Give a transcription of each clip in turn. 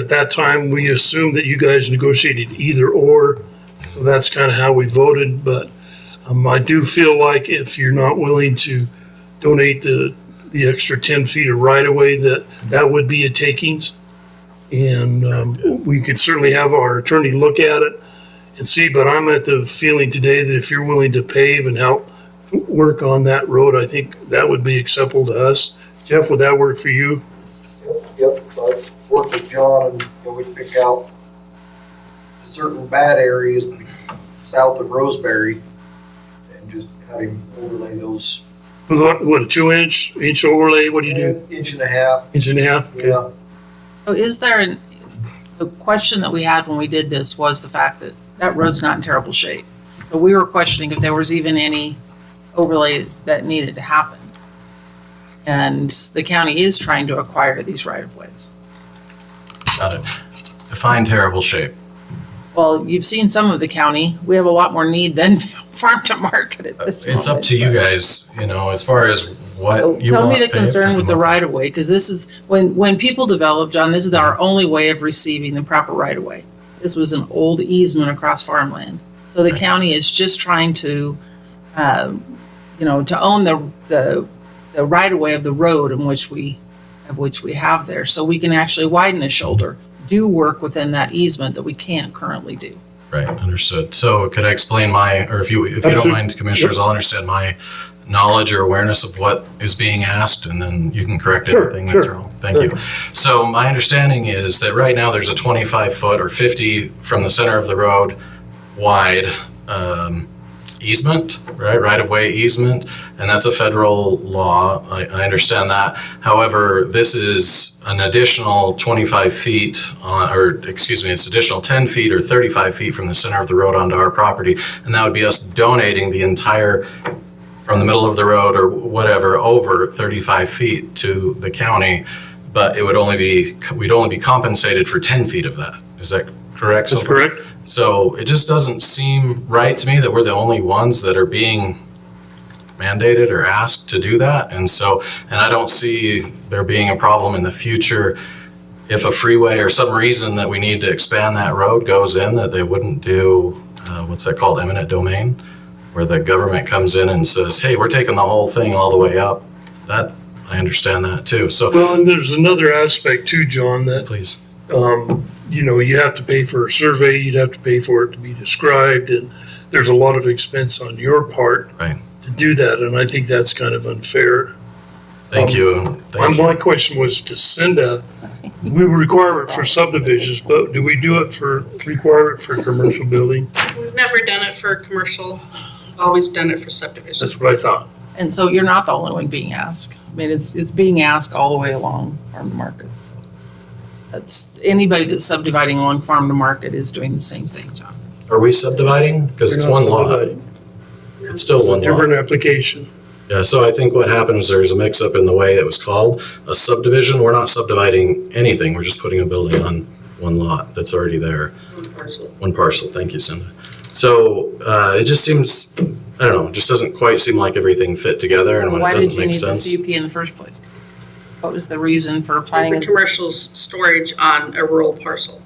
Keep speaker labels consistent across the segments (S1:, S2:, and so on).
S1: At that time, we assumed that you guys negotiated either or, so that's kind of how we voted, but um, I do feel like if you're not willing to donate the, the extra ten feet of right of way, that, that would be a takings. And, um, we could certainly have our attorney look at it and see, but I'm at the feeling today that if you're willing to pave and help work on that road, I think that would be acceptable to us. Jeff, would that work for you?
S2: Yep, I worked with John and you know, we pick out certain bad areas south of Roseberry and just have him overlay those.
S1: With What, what, a two inch, inch overlay, what do you do?
S2: Inch and a half,
S1: Inch and a half? Okay.
S2: yeah.
S3: So is there an, the question that we had when we did this was the fact that that road's not in terrible shape. So we were questioning if there was even any overlay that needed to happen. And the county is trying to acquire these right of ways.
S4: Got it. Define terrible shape.
S3: Well, you've seen some of the county. We have a lot more need than farm to market at this moment.
S4: It's up to you guys, you know, as far as
S3: So
S4: what you
S3: Tell
S4: want.
S3: me the
S4: paved
S3: concern
S4: and
S3: with the
S4: what-
S3: right of way, because this is, when, when people develop, John, this is our only way of receiving the proper right of way. This was an old easement across farmland. So the
S4: Right.
S3: county is just trying to, um, you know, to own the, the, the right of way of the road in which we, of which we have there. So we can actually widen a shoulder, do work within that easement that we can't currently do.
S4: Right, understood. So could I explain my, or if you, if you don't
S1: Absolutely.
S4: mind, commissioners, I'll understand my knowledge or awareness of what is being asked, and then you can correct
S1: Sure,
S4: anything that's
S1: sure.
S4: wrong. Thank you. So my understanding is that right now there's a 25 foot or 50 from the center of the road wide um, easement, right, right of way easement, and that's a federal law. I, I understand that. However, this is an additional 25 feet, on, or excuse me, it's additional 10 feet or 35 feet from the center of the road onto our property, and that would be us donating the entire from the middle of the road or whatever over 35 feet to the county, but it would only be, we'd only be compensated for 10 feet of that. Is that correct?
S1: That's
S4: So-
S1: correct?
S4: so it just doesn't seem right to me that we're the only ones that are being mandated or asked to do that. And so, and I don't see there being a problem in the future if a freeway or some reason that we need to expand that road goes in that they wouldn't do, uh, what's that called, eminent domain? Where the government comes in and says, hey, we're taking the whole thing all the way up. That, I understand that too. So
S1: Well, and there's another aspect too, John, that
S4: please,
S1: um, you know, you have to pay for a survey, you'd have to pay for it to be described, and there's a lot of expense on your part
S4: Right.
S1: to do that, and I think that's kind of unfair.
S4: thank you.
S1: My,
S4: Thank you.
S1: my question was to Cinda, we require it for subdivisions, but do we do it for, require it for commercial building?
S5: We've never done it for commercial, always done it for subdivisions.
S1: That's what I thought.
S3: And so you're not the only one being asked. I mean, it's, it's being asked all the way along farm to market. So That's, anybody that's subdividing along farm to market is doing the same thing, John.
S4: Are we subdividing? Because it's one lot. It's still
S1: It's a
S4: one lot.
S1: different application.
S4: Yeah, so I think what happened was there's a mix-up in the way it was called. A subdivision, we're not subdividing anything, we're just putting a building on one lot that's already there,
S5: One parcel.
S4: one parcel. Thank you, Cindy. So uh, it just seems, I don't know, it just doesn't quite seem like everything fit together and when it
S3: Why did
S4: doesn't
S3: you
S4: make
S3: need the
S4: sense.
S3: CUP in the first place? What was the reason for planning?
S5: For
S3: it?
S5: commercial s- storage on a rural parcel.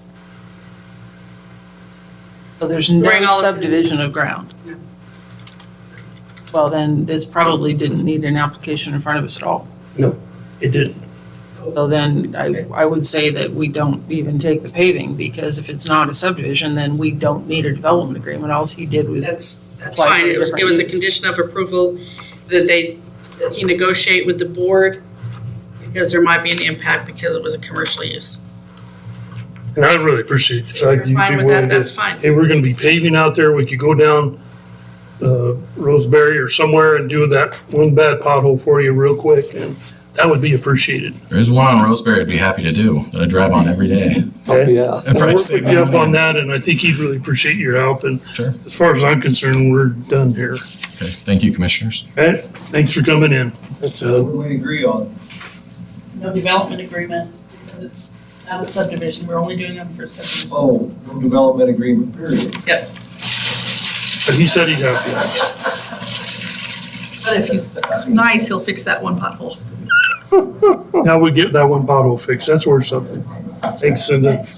S3: So there's no
S5: Bring all of-
S3: subdivision of ground?
S5: No.
S3: Well, then this probably didn't need an application in front of us at all.
S1: It didn't.
S3: So then I, I would say that we don't even take the paving because if it's not a subdivision, then we don't need a development agreement. All he did was
S5: That's, that's
S3: Apply for
S5: fine. It was, it was
S3: different
S5: a
S3: use.
S5: condition of approval that they, that you negotiate with the board because there might be an impact because it was a commercial use.
S1: And I really appreciate the
S5: If you're
S1: fact that Uh, you'd
S5: fine
S1: be
S5: with that,
S1: willing to
S5: that's fine.
S1: hey, we're gonna be paving out there, we could go down uh, Roseberry or somewhere and do that one bad pothole for you real quick, and that would be appreciated.
S4: There's one on Roseberry I'd be happy to do, that I drive on every day.
S1: Okay?
S6: Yeah.
S4: If I
S1: I'll work
S4: save
S1: with
S4: my
S1: Jeff on
S4: money.
S1: that, and I think he'd really appreciate your help, and
S4: Sure,
S1: as far as I'm concerned, we're done here.
S4: okay, thank you, commissioners.
S1: Okay, thanks for coming in.
S2: What do we agree on?
S7: no development agreement, because it's not a subdivision, we're only doing them for subdivision.
S2: Oh, no development agreement, period.
S1: But he said he'd help
S7: But if he's nice, he'll fix that one pothole.
S1: Now we get that one pothole fixed. That's worth something. Thanks, Cindy.